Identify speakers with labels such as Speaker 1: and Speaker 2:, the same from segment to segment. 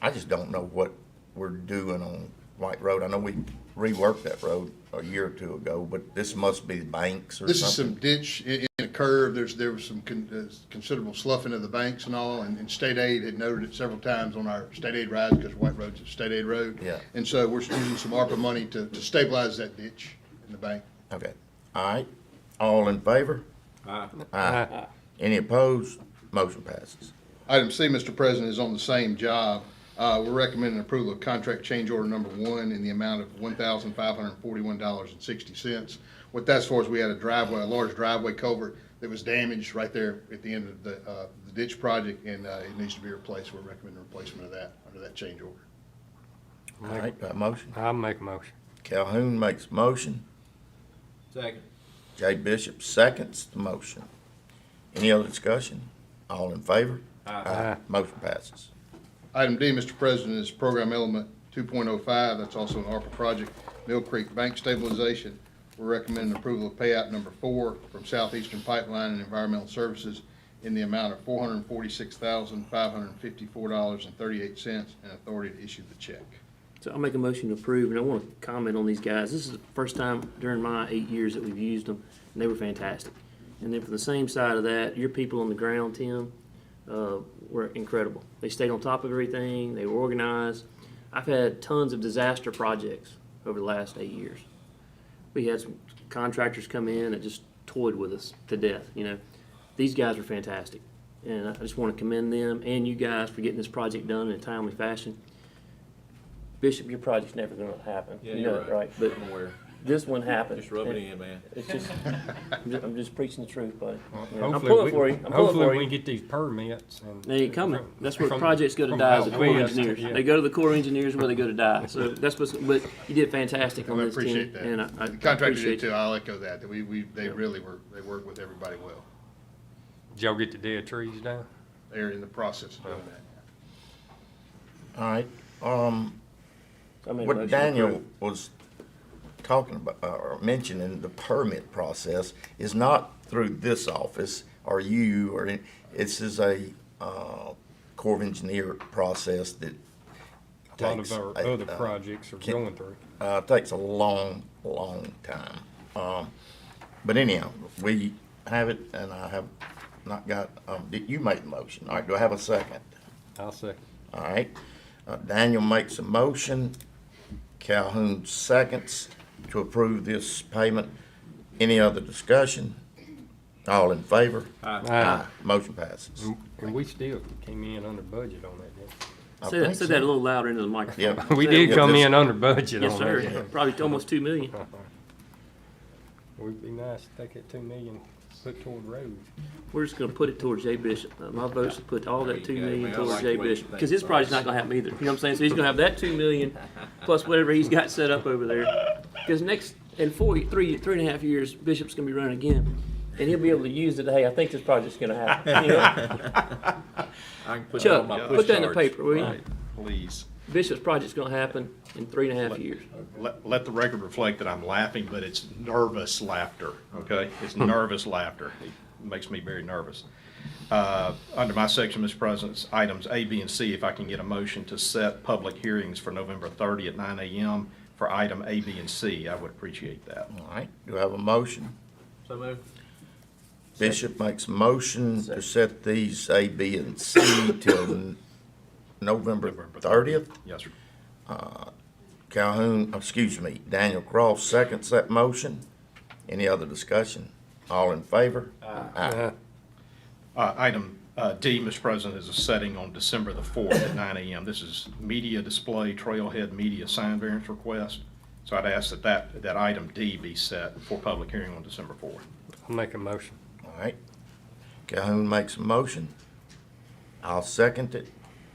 Speaker 1: I just don't know what we're doing on White Road. I know we reworked that road a year or two ago, but this must be banks or
Speaker 2: This is some
Speaker 1: something.
Speaker 2: ditch in, in a curve. There's, there was some con- uh, considerable sloughing of the banks and all, and, and state aid had noted it several times on our state aid rides, because White Road's a state aid road.
Speaker 1: Yeah.
Speaker 2: And so we're using some ARPA money to, to stabilize that ditch in the bank.
Speaker 1: Okay, all right, all in favor? Aye. Any opposed? Motion passes.
Speaker 2: Item C, Mr. President, is on the same job. Uh, we're recommending approval of contract change order number one in the amount of one thousand five hundred and forty-one dollars and sixty cents. What that's for is we had a driveway, a large driveway culvert that was damaged right there at the end of the, uh, the ditch project, and, uh, it needs to be replaced. We're recommending replacement of that under that change order.
Speaker 1: All right, got a motion?
Speaker 3: I'll make a motion.
Speaker 1: Calhoun makes a motion.
Speaker 4: Second.
Speaker 1: Jay Bishop seconds the motion. Any other discussion? All in favor?
Speaker 3: Aye.
Speaker 1: Motion passes.
Speaker 2: Item D, Mr. President, is program element two point oh five, that's also an ARPA project, Mill Creek Bank Stabilization. We're recommending approval of payout number four from Southeastern Pipeline and Environmental Services in the amount of four hundred and forty-six thousand, five hundred and fifty-four dollars and thirty-eight cents, and authority to issue the check.
Speaker 5: So I'll make a motion to approve, and I want to comment on these guys. This is the first time during my eight years that we've used them, and they were fantastic. And then from the same side of that, your people on the ground, Tim, uh, were incredible. They stayed on top of everything, they were organized. I've had tons of disaster projects over the last eight years. We had some contractors come in that just toyed with us to death, you know. These guys were fantastic, and I just want to commend them and you guys for getting this project done in a timely fashion. Bishop, your project's never gonna happen.
Speaker 4: Yeah,
Speaker 5: You
Speaker 4: you're
Speaker 5: know it,
Speaker 4: right.
Speaker 5: But
Speaker 4: I'm aware.
Speaker 5: this one happened.
Speaker 4: Just rub it in, man.
Speaker 5: It's just, I'm just, I'm just preaching the truth, buddy. Yeah, I'm
Speaker 3: Hopefully
Speaker 5: pulling
Speaker 3: we-
Speaker 5: for you, I'm pulling
Speaker 3: Hopefully
Speaker 5: for
Speaker 3: we
Speaker 5: you.
Speaker 3: can get these permits and.
Speaker 5: They ain't coming. That's where
Speaker 3: From-
Speaker 5: projects go to
Speaker 3: from
Speaker 5: die, is the
Speaker 3: how
Speaker 5: Corps of
Speaker 3: we estimate,
Speaker 5: Engineers.
Speaker 3: yeah.
Speaker 5: They go to the Corps of Engineers where they go to die. So that's what's, but you did fantastic on
Speaker 2: I
Speaker 5: this team.
Speaker 2: appreciate that.
Speaker 5: And I, I
Speaker 2: The contractor
Speaker 5: appreciate
Speaker 2: did
Speaker 5: you.
Speaker 2: too, I'll echo that, that we, we, they really were, they worked with everybody well.
Speaker 3: Did y'all get the dead trees down?
Speaker 2: They're in the process of doing that.
Speaker 1: All right, um,
Speaker 5: I made a
Speaker 1: what
Speaker 5: motion to
Speaker 1: Daniel
Speaker 5: approve.
Speaker 1: was talking about, uh, or mentioning, the permit process is not through this office or you or, any- this is a, uh, Corps of Engineer process that
Speaker 3: A lot
Speaker 1: takes
Speaker 3: of our
Speaker 1: a-
Speaker 3: other
Speaker 1: uh,
Speaker 3: projects are
Speaker 1: can-
Speaker 3: going through.
Speaker 1: Uh, takes a long, long time. Um, but anyhow, we have it, and I have not got, um, did you make the motion? All right, do I have a second?
Speaker 3: I'll second.
Speaker 1: All right, uh, Daniel makes a motion, Calhoun seconds to approve this payment. Any other discussion? All in favor?
Speaker 3: Aye.
Speaker 1: Motion passes.
Speaker 3: And we still came in under budget on that, didn't
Speaker 1: I
Speaker 5: Say that,
Speaker 1: think
Speaker 5: say
Speaker 1: so.
Speaker 5: that a little louder into the microphone.
Speaker 1: Yeah.
Speaker 3: we? We
Speaker 5: Say it
Speaker 3: did
Speaker 5: with-
Speaker 3: come in under budget
Speaker 5: Yes,
Speaker 3: on
Speaker 5: sir.
Speaker 3: that.
Speaker 5: Probably almost two million.
Speaker 3: Would be nice to take that two million, put toward roads.
Speaker 5: We're just gonna put it towards Jay Bishop. Uh, My vote's to put all that
Speaker 4: There
Speaker 5: two
Speaker 4: you go,
Speaker 5: million
Speaker 4: man. I
Speaker 5: towards
Speaker 4: like
Speaker 5: Jay
Speaker 4: the way you
Speaker 5: Bishop,
Speaker 4: think,
Speaker 5: because his
Speaker 4: boss.
Speaker 5: project's not gonna happen either. You know what I'm saying? So he's gonna have that two million plus whatever he's got set up over there. Because next, in four, three, three and a half years, Bishop's gonna be running again, and he'll be able to use it, hey, I think this project's gonna happen. You know?
Speaker 4: I can put that on
Speaker 5: Chuck,
Speaker 4: my
Speaker 5: put
Speaker 4: push
Speaker 5: that in the
Speaker 4: cards.
Speaker 5: paper, will you?
Speaker 6: Please,
Speaker 5: Bishop's project's gonna happen in three and a half years.
Speaker 6: let, let the record reflect that I'm laughing, but it's nervous laughter, okay? It's nervous laughter. It makes me very nervous. Uh, Under my section, Mr. President, it's items A, B, and C, if I can get a motion to set public hearings for November 30 at 9 a.m. for item A, B, and C, I would appreciate that.
Speaker 1: All right, do I have a motion?
Speaker 4: So moved.
Speaker 1: Bishop makes a motion to set these A, B, and C till n- November thirtieth. Uh,
Speaker 6: Yes, sir.
Speaker 1: Calhoun, oh, excuse me, Daniel Cross seconds that motion. Any other discussion? All in favor? Aye.
Speaker 6: Uh, Item uh, D, Mr. President, is a setting on December the 4th at 9 a.m. This is media display, trailhead media sign variance request. So I'd ask that that, that item D be set for public hearing on December 4th.
Speaker 3: I'll make a motion.
Speaker 1: All right. Calhoun makes a motion. I'll second it.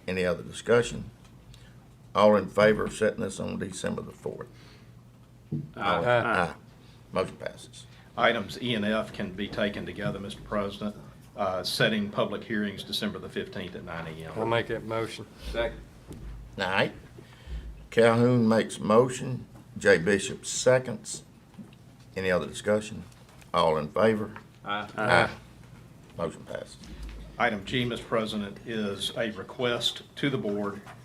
Speaker 1: Any other discussion? All in favor of setting this on December the fourth?
Speaker 3: Aye.
Speaker 1: Motion passes.
Speaker 6: Items E and F can be taken together, Mr. President, Uh, setting public hearings December the 15th at 9 a.m.
Speaker 3: I'll make that motion.
Speaker 4: Second.
Speaker 1: All right. Calhoun makes motion. Jay Bishop seconds. Any other discussion? All in favor?
Speaker 4: Aye.
Speaker 1: Aye. Motion passes.
Speaker 6: Item G, Mr. President, is a request to the board uh,